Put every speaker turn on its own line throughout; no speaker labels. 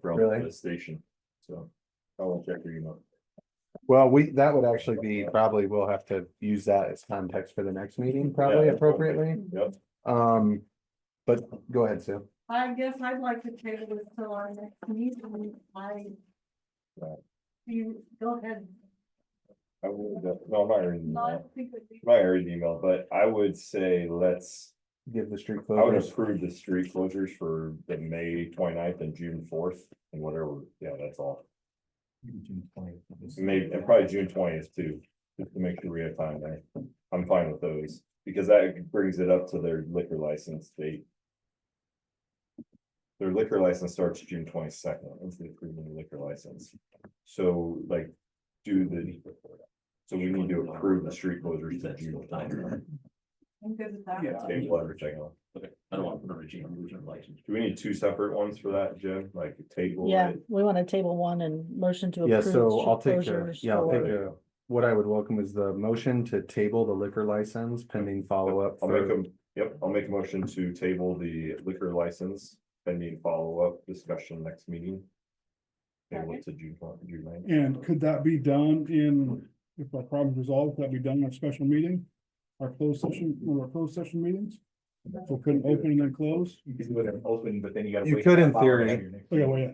from
Really?
the station, so. I will check your email.
Well, we, that would actually be, probably we'll have to use that as context for the next meeting, probably
Yeah.
appropriately.
Yep,
Um, but go ahead, Sue.
I guess I'd like to table this till our next meeting, I.
Right.
You, go ahead.
I will, def- no, I'm not reading the
No, I
email,
don't think that we-
I'm not reading the email, but I would say let's,
Give the street
I would
closures.
approve the street closures for the May 29th and June fourth and whatever, yeah, that's all. Maybe, and probably June twentieth too, just to make sure we have time there. I'm fine with those, because that brings it up to their liquor license date. Their liquor license starts June twenty second, it's the approving liquor license. So like, do the. So we need to approve the street closures to June. 20th.
I'm good with that.
Yeah, table everything else.
Okay, I don't want to put a regime, I'm losing my license.
Do we need two separate ones for that, Jim? Like table?
Yeah,
it?
we want to table one and motion to
Yeah,
approve.
so I'll
street
take the,
closures
yeah, I'll
for-
take the, what I would welcome is the motion to table the liquor license pending follow-up.
I'll make
for-
them, yep, I'll make a motion to table the liquor license pending follow-up discussion next meeting. Table it to June, one- June ninth.
And could that be done in, if our problem's resolved, could that be done in our special meeting? Our closed session, one of our closed session meetings? So couldn't open and then close?
You can do it in open, but then you gotta.
You
wait
could
for
in
the following
theory.
year next
Yeah,
year.
well, yeah.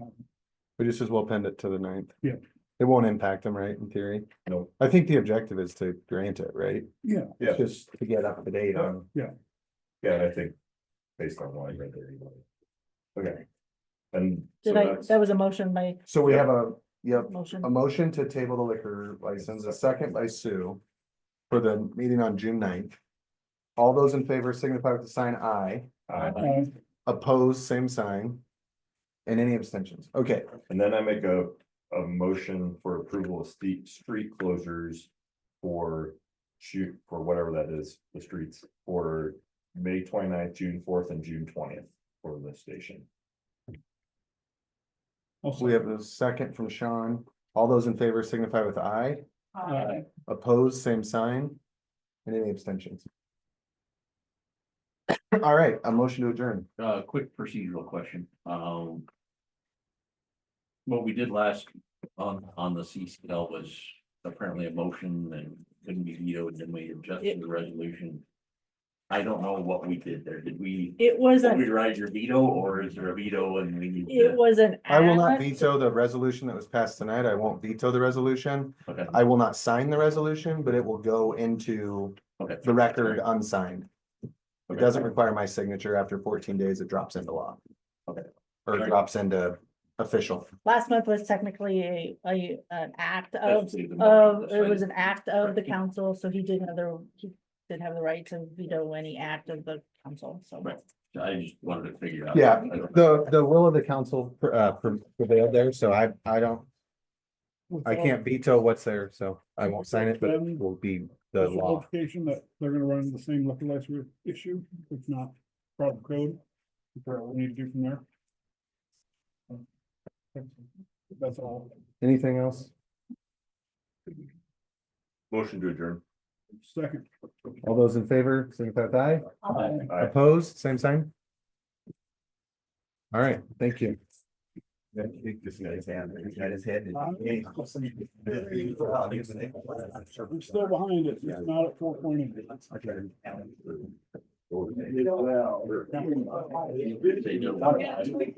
We just as well pend it to the ninth.
Yeah.
It won't impact them, right, in theory?
No.
I think the objective is to grant it, right?
Yeah.
Yeah.
Just to get up to date on.
Yeah, I think based on what I read there. anyway. Okay. And. so
Did I,
that's-
that was a motion by
So we have a, yep,
motion.
a
Um,
motion to table the liquor license, a second by Sue. For the meeting on June 9th. All those in favor signify with the sign aye,
uh,
Uh,
opposed, same sign. And any abstentions, okay,
And then I make a, a motion for approval of steep street closures for shoot, for whatever that is, the streets for May 29th, June fourth and June twentieth for the station.
also,
we have a second from Sean, all those in favor signify with aye,
Uh,
uh,
opposed, same sign. And any abstentions? All right, a motion to adjourn,
Uh, quick procedural question, um. What we did last on, on the CCL was apparently a motion and couldn't be vetoed, and we adjusted the resolution. I don't know what we did there, did we
It wasn't,
override your veto, or is there a veto and we need
it
to?
was an.
I will not
act.
veto the resolution that was passed tonight, I won't veto the resolution.
Okay,
I will not sign the resolution, but it will go into
okay.
the record unsigned. It
Okay.
doesn't require my signature. After fourteen days, it drops into law.
Okay.
Or it drops into official.
Last month was technically a, a, an act of,
That's the
of,
motion,
it was an act of the
Right.
council, so he did have the, he did have the right to veto any act of the council, so.
Right. I just wanted to figure out.
Yeah,
I don't know.
The, the will of the council uh, prevailed there, so I, I don't,
with
I
all-
can't veto what's there, so I won't sign it, but it will be the
with the
law.
Notification that they're gonna run into the same liquor license issue, if not, problem code. Figure out what we need to do from there. That's all.
Anything else?
Motion to adjourn.
Second.
All those in favor, signify with aye.
uh,
Aye.
Opposed, same sign? All right, thank you.
We're still behind it. It's not at four point eight.
They don't.